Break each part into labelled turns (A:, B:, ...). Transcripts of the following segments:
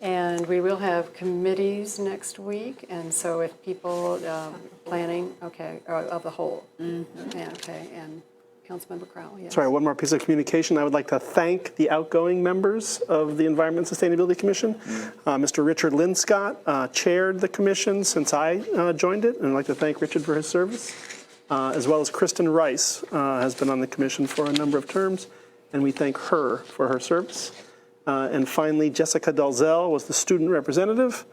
A: And we will have committees next week, and so if people, um, planning, okay, or of the whole. Yeah, okay, and Councilmember Crowell, yes.
B: Sorry, one more piece of communication. I would like to thank the outgoing members of the Environment and Sustainability Commission. Uh, Mr. Richard Linscott uh, chaired the commission since I uh, joined it, and I'd like to thank Richard for his service, uh, as well as Kristen Rice uh, has been on the commission for a number of terms, and we thank her for her service. Uh, And finally, Jessica Dalzell was the student representative,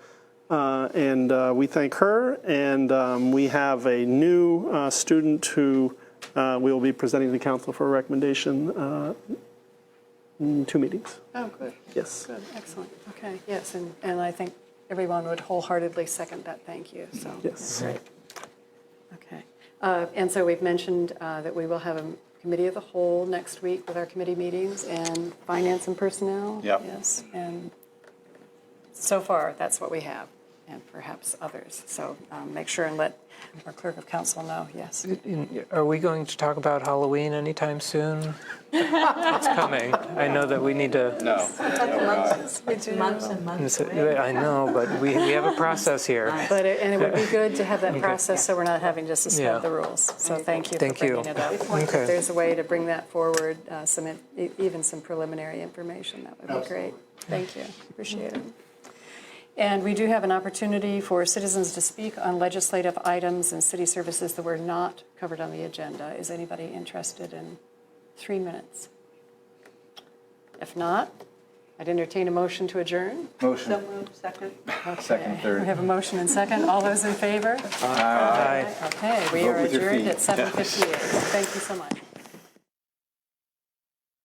B: uh, and uh, we thank her. And um, we have a new uh, student who uh, we will be presenting to the council for a recommendation uh, in two meetings.
A: Oh, good,
B: Yes.
A: good, excellent, okay, yes, and, and I think everyone would wholeheartedly second that, thank you, so.
B: Yes.
A: Great. Okay. Uh, And so we've mentioned uh, that we will have a committee of the whole next week with our committee meetings and finance and personnel.
C: Yep.
A: Yes, and so far, that's what we have, and perhaps others. So um, make sure and let our clerk of council know, yes.
D: Are we going to talk about Halloween anytime soon? it's coming. I know that we need to.
C: No.
E: It's months and months away.
D: I know, but we, we have a process here.
A: But, it- and it would be good to have that process, so we're not having to
D: Yeah.
A: suspend the rules. So thank you for
D: Thank you.
A: bringing it up.
D: Okay.
A: If there's a way to bring that forward, uh, some, in- e- even some preliminary information, that would be great. Thank you, appreciate it. And we do have an opportunity for citizens to speak on legislative items and city services that were not covered on the agenda. Is anybody interested in three minutes? If not, I'd entertain a motion to adjourn.
E: So
C: Motion,
E: moved, second.
C: second,
A: We
C: third.
A: have a motion and second. All those in favor?
D: Bye.
A: Okay, we
C: Vote
A: are
C: with your
A: adjourned
C: feet.
A: at 7:58. Thank you so much.